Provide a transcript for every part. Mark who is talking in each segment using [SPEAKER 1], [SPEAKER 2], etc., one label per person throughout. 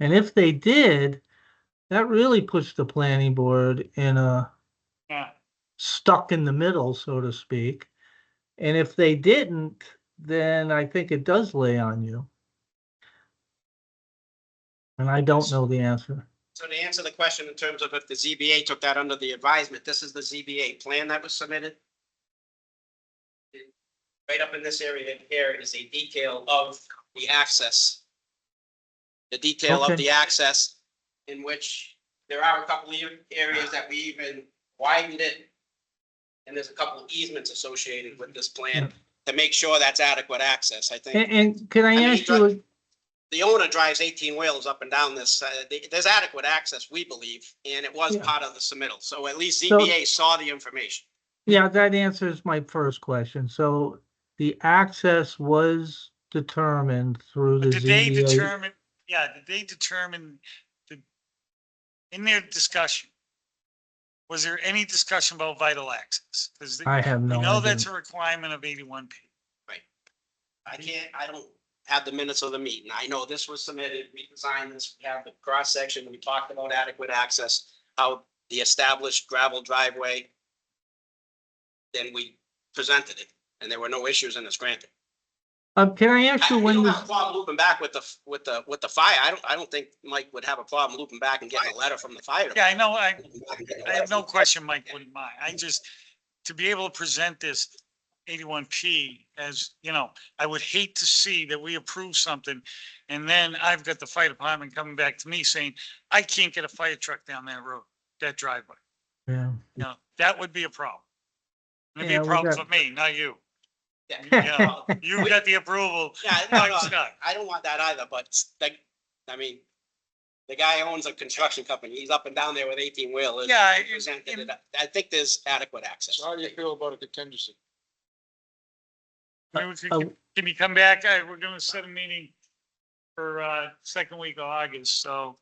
[SPEAKER 1] And if they did, that really puts the planning board in a
[SPEAKER 2] Yeah,
[SPEAKER 1] stuck in the middle, so to speak. And if they didn't, then I think it does lay on you. And I don't know the answer.
[SPEAKER 3] So to answer the question in terms of if the ZBA took that under the advisement, this is the ZBA plan that was submitted. Right up in this area here is a detail of the access. The detail
[SPEAKER 1] Okay.
[SPEAKER 3] of the access in which there are a couple of areas that we even widened it. And there's a couple of easements associated with this plan to make sure that's adequate access, I think
[SPEAKER 1] And, and can I
[SPEAKER 3] I mean,
[SPEAKER 1] ask you, a-
[SPEAKER 3] the owner drives eighteen wheels up and down this, uh, th- there's adequate access, we believe, and it was
[SPEAKER 1] Yeah.
[SPEAKER 3] part of the submittal, so at least
[SPEAKER 1] So-
[SPEAKER 3] ZBA saw the information.
[SPEAKER 1] yeah, that answers my first question. So the access was determined through the
[SPEAKER 2] but did they
[SPEAKER 1] ZBA.
[SPEAKER 2] determine, yeah, did they determine the, in their discussion, was there any discussion about vital access? Because
[SPEAKER 1] I have
[SPEAKER 2] we
[SPEAKER 1] no
[SPEAKER 2] know
[SPEAKER 1] idea.
[SPEAKER 2] that's a requirement of eighty-one P.
[SPEAKER 3] I can't, I don't have the minutes of the meeting, I know this was submitted, we designed this, we have the cross-section, we talked about adequate access, how the established gravel driveway. Then we presented it, and there were no issues and it's granted.
[SPEAKER 1] Um, can I ask
[SPEAKER 3] I
[SPEAKER 1] you
[SPEAKER 3] I
[SPEAKER 1] when
[SPEAKER 3] don't
[SPEAKER 1] was?
[SPEAKER 3] have a problem looping back with the, f- with the, with the fire, I don't, I don't think Mike would have a problem looping back and getting a letter from the fire.
[SPEAKER 2] Yeah, I know, I,
[SPEAKER 3] department.
[SPEAKER 2] I have no question Mike wouldn't mind. I just, to be able to present this eighty-one P as, you know, I would hate to see that we approve something and then I've got the fire department coming back to me saying, I can't get a fire truck down that road, that driveway.
[SPEAKER 1] Yeah.
[SPEAKER 2] No, that would be a problem. It'd be
[SPEAKER 1] Yeah,
[SPEAKER 2] a
[SPEAKER 1] we
[SPEAKER 2] problem
[SPEAKER 1] got-
[SPEAKER 2] for me, not you.
[SPEAKER 3] Yeah.
[SPEAKER 2] Yeah, you got the approval.
[SPEAKER 3] Yeah, no,
[SPEAKER 2] I'm
[SPEAKER 3] no,
[SPEAKER 2] stuck.
[SPEAKER 3] I don't want that either, but like, I mean, the guy owns a construction company. He's up and down there with eighteen wheelers.
[SPEAKER 2] Yeah,
[SPEAKER 3] He
[SPEAKER 2] it-
[SPEAKER 3] presented it
[SPEAKER 2] it-
[SPEAKER 3] up. I think there's adequate access.
[SPEAKER 4] So how do you feel about a contingency?
[SPEAKER 2] I mean, we could-
[SPEAKER 1] Uh,
[SPEAKER 2] Can you come back? I, we're gonna set a meeting for, uh, second week of August, so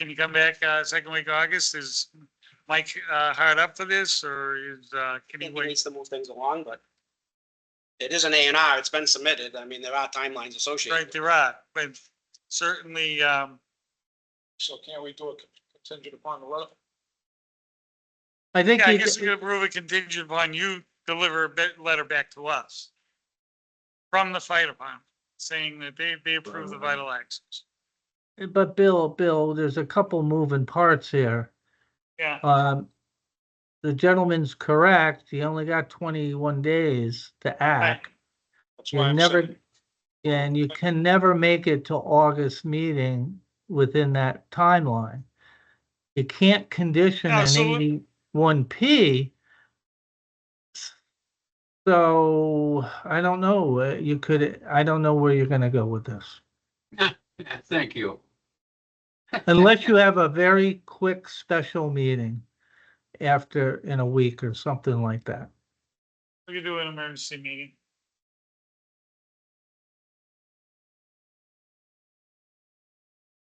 [SPEAKER 2] can you come back, uh, second week of August? Is Mike, uh, hard up for this or is, uh,
[SPEAKER 3] I
[SPEAKER 2] can he
[SPEAKER 3] think he
[SPEAKER 2] wait?
[SPEAKER 3] needs to move things along, but it is an A and R. It's been submitted. I mean, there are timelines associated.
[SPEAKER 2] Right,
[SPEAKER 3] with it.
[SPEAKER 2] there are, but certainly, um,
[SPEAKER 4] So can't we do a contingent upon the letter?
[SPEAKER 1] I think.
[SPEAKER 2] yeah, I
[SPEAKER 1] you
[SPEAKER 2] guess
[SPEAKER 1] d-
[SPEAKER 2] we could approve a contingent upon you deliver a bit, letter back to us from the fire department, saying that they, they approve the vital access.
[SPEAKER 1] But Bill, Bill, there's a couple moving parts here.
[SPEAKER 2] Yeah,
[SPEAKER 1] Um, the gentleman's correct. He only got twenty-one days to act.
[SPEAKER 4] That's why
[SPEAKER 1] You
[SPEAKER 4] I'm
[SPEAKER 1] never,
[SPEAKER 4] saying,
[SPEAKER 1] and you can never make it to August meeting within that timeline. You can't condition
[SPEAKER 2] Yeah,
[SPEAKER 1] an
[SPEAKER 2] so what-
[SPEAKER 1] eighty-one P. So I don't know, uh, you could, I don't know where you're gonna go with this.
[SPEAKER 5] Thank you.
[SPEAKER 1] Unless you have a very quick special meeting after, in a week or something like that.
[SPEAKER 2] we could do an emergency meeting.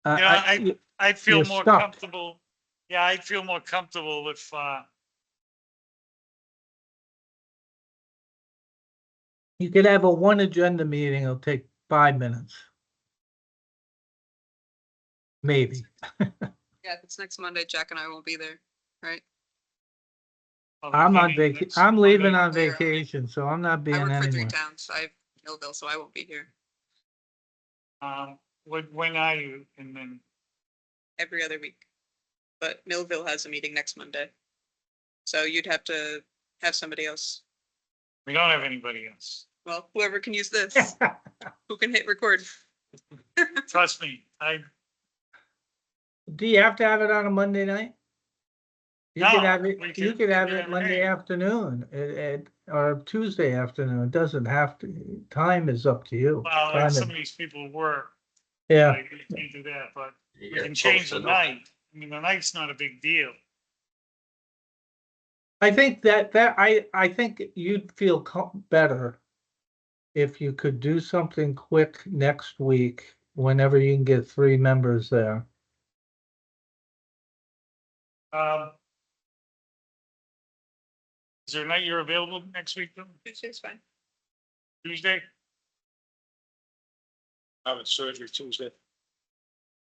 [SPEAKER 1] Uh,
[SPEAKER 2] Yeah, I- I'd feel
[SPEAKER 1] You're
[SPEAKER 2] more
[SPEAKER 1] stuck.
[SPEAKER 2] comfortable, yeah, I'd feel more comfortable if, uh,
[SPEAKER 1] You could have a one agenda meeting, it'll take five minutes. Maybe.
[SPEAKER 6] Yeah, if it's next Monday, Jack and I won't be there, right?
[SPEAKER 2] well,
[SPEAKER 1] I'm on
[SPEAKER 2] meeting
[SPEAKER 1] vac,
[SPEAKER 2] next
[SPEAKER 1] I'm leaving
[SPEAKER 2] Monday.
[SPEAKER 1] on
[SPEAKER 6] Clear.
[SPEAKER 1] vacation, so I'm not
[SPEAKER 6] I
[SPEAKER 1] being
[SPEAKER 6] work for three
[SPEAKER 1] anywhere.
[SPEAKER 6] towns. I have Millville, so I won't be here
[SPEAKER 2] Um, when, when are you? And then,
[SPEAKER 6] every other week. But Millville has a meeting next Monday. So you'd have to have somebody else,
[SPEAKER 2] we don't have anybody else.
[SPEAKER 6] well, whoever can use this, who can hit record.
[SPEAKER 2] Trust me, I,
[SPEAKER 1] Do you have to have it on a Monday night? You could
[SPEAKER 2] No,
[SPEAKER 1] have
[SPEAKER 2] we
[SPEAKER 1] it,
[SPEAKER 2] can-
[SPEAKER 1] you could have
[SPEAKER 2] we
[SPEAKER 1] it
[SPEAKER 2] can
[SPEAKER 1] Monday
[SPEAKER 2] hang.
[SPEAKER 1] afternoon, it, it, or Tuesday afternoon, it doesn't have to, time is up to you.
[SPEAKER 2] well,
[SPEAKER 1] Time
[SPEAKER 2] if
[SPEAKER 1] is-
[SPEAKER 2] some of these people work,
[SPEAKER 1] Yeah,
[SPEAKER 2] I can't do that, but
[SPEAKER 5] You
[SPEAKER 2] we can change the night. I mean, the night's not a big deal.
[SPEAKER 1] I think that, that, I, I think you'd feel co- better if you could do something quick next week, whenever you can get three members there.
[SPEAKER 2] Um, is there a night you're available next week, though?
[SPEAKER 6] Tuesday's fine.
[SPEAKER 2] Tuesday?
[SPEAKER 4] having surgery Tuesday.